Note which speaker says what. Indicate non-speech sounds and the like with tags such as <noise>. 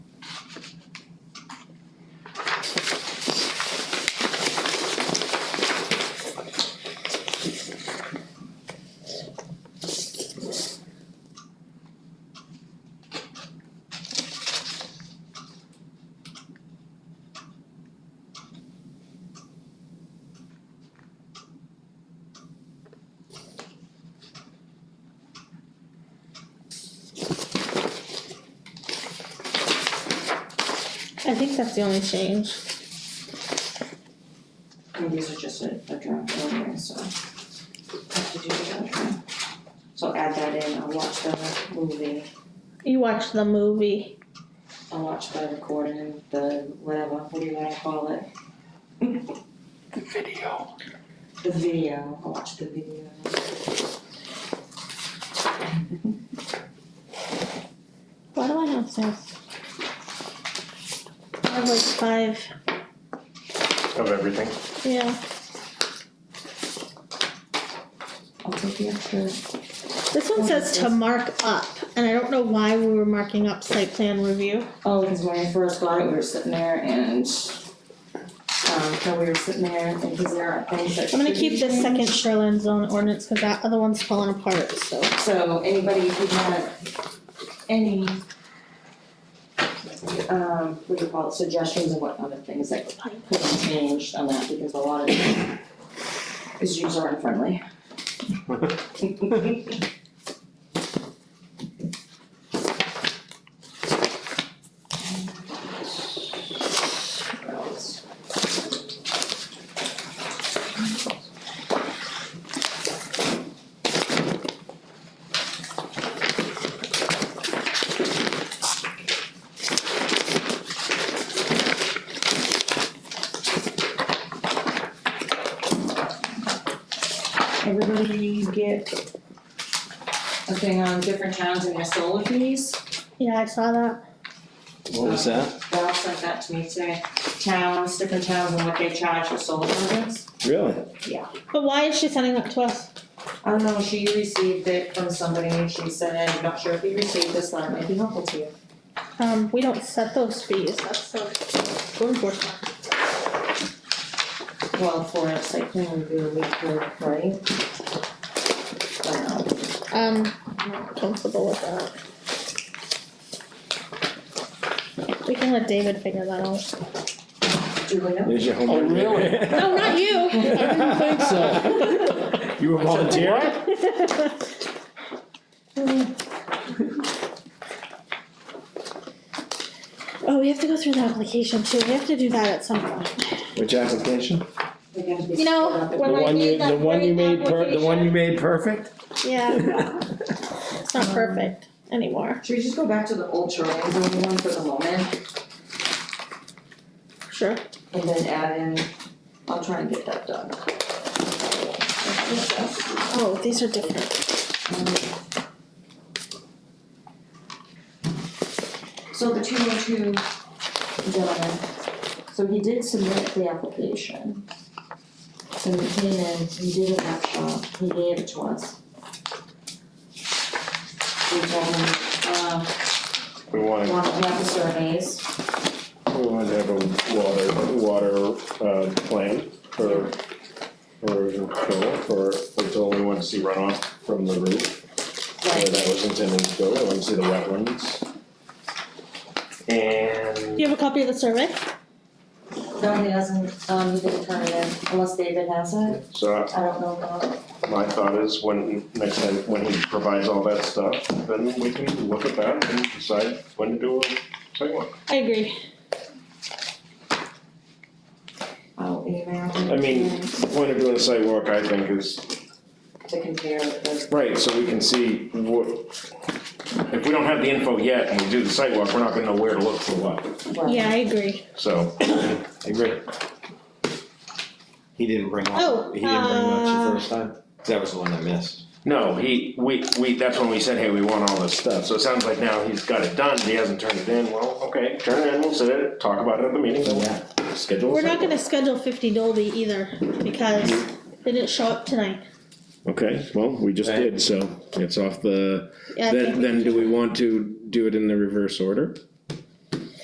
Speaker 1: I think that's the only change.
Speaker 2: And these are just a, a draft anyway, so. Have to do the other. So add that in, I'll watch the movie,
Speaker 1: You watched the movie.
Speaker 2: I'll watch the recording, the whatever, what do you wanna call it?
Speaker 3: Video.
Speaker 2: The video, I'll watch the video.
Speaker 1: Why do I have this? I have like five,
Speaker 3: Of everything.
Speaker 1: yeah.
Speaker 2: I'll take the extra.
Speaker 1: This one says to mark up, and I don't know why we were marking up site plan review.
Speaker 2: Oh, because when I first got it, we were sitting there and, um, no, we were sitting there and because there are things that.
Speaker 1: I'm gonna
Speaker 2: should be
Speaker 1: keep this
Speaker 2: changed.
Speaker 1: second shoreline zone ordinance, cause that other one's falling apart, so.
Speaker 2: So anybody who had any um, what do you call it, suggestions and what other things that could be changed on that, because a lot of it is user unfriendly. What else? Everybody get a thing on different towns and their solar fees?
Speaker 1: Yeah, I saw that.
Speaker 3: What was that?
Speaker 2: Ralph sent that to me today, towns, different towns and what they charge for solar projects.
Speaker 3: Really?
Speaker 1: But why is she sending that to us?
Speaker 2: I don't know, she received it from somebody, and she said, I'm not sure if you received this, letter might be helpful to you.
Speaker 1: Um, we don't set those fees, that's the code enforcement.
Speaker 2: Well, for a site plan review, we could, right? I don't know.
Speaker 1: Um, I'm not comfortable with that. We can let David figure that out.
Speaker 2: Julia?
Speaker 3: There's your homework.
Speaker 4: Oh, <laughs> really?
Speaker 1: No, Oh, not you.
Speaker 4: I didn't <laughs> think so.
Speaker 3: You were volunteering?
Speaker 1: Oh, we have to go through the application too, we have to do that at some point.
Speaker 3: Which application?
Speaker 2: They're gonna be
Speaker 1: You know,
Speaker 2: split up.
Speaker 1: when I made that great application-
Speaker 3: made
Speaker 4: <laughs>
Speaker 3: perfect?
Speaker 1: Yeah. It's not perfect anymore,
Speaker 2: Should we just go back to the old shoreline zone one for the moment,
Speaker 1: sure.
Speaker 2: and then add in, I'll try and get that done.
Speaker 1: Oh, these are different.
Speaker 2: So the two oh two gentleman, so he did submit the application. And he came in, he did a workshop, he gave it to us. We told him, uh,
Speaker 3: We wanted,
Speaker 2: want to have the surveys,
Speaker 3: we wanted to have a water, water, uh, plan for, for erosion control, for, until we wanted to see runoff from the roof. Where
Speaker 2: right,
Speaker 3: that was intended to go, I wanted to see the wetlands.
Speaker 1: Do
Speaker 3: And
Speaker 1: you have a copy of the survey?
Speaker 2: no, he doesn't, um, he didn't turn it in, unless David has it,
Speaker 3: so
Speaker 2: I don't know about.
Speaker 3: my thought is when, next time, when he provides all that stuff, then we can look at that and decide when to do a sidewalk.
Speaker 1: I agree.
Speaker 2: I'll email him
Speaker 3: I mean, the point of doing a sidewalk, I think, is
Speaker 2: to compare with the
Speaker 3: Right, so we can see what, if we don't have the info yet and we do the sidewalk, we're not gonna know where to look for what,
Speaker 1: Yeah, I agree.
Speaker 3: so.
Speaker 4: agree. He didn't bring
Speaker 1: Oh,
Speaker 4: all, he didn't bring much
Speaker 1: uh,
Speaker 4: the first time. That was the one I missed.
Speaker 3: No, he, we, we, that's when we said, hey, we want all this stuff, so it sounds like now he's got it done, he hasn't turned it in, well, okay, turn it in, we'll sit it, talk about it at the meeting, then we'll schedule. a
Speaker 1: We're not
Speaker 3: sidewalk.
Speaker 1: gonna schedule fifty Dolby either, because they didn't show up tonight.
Speaker 5: Okay, well, we just
Speaker 4: Right.
Speaker 5: did, so it's off the,
Speaker 1: Yeah, I
Speaker 5: then,
Speaker 1: think,
Speaker 5: then do we want to do it in the reverse order?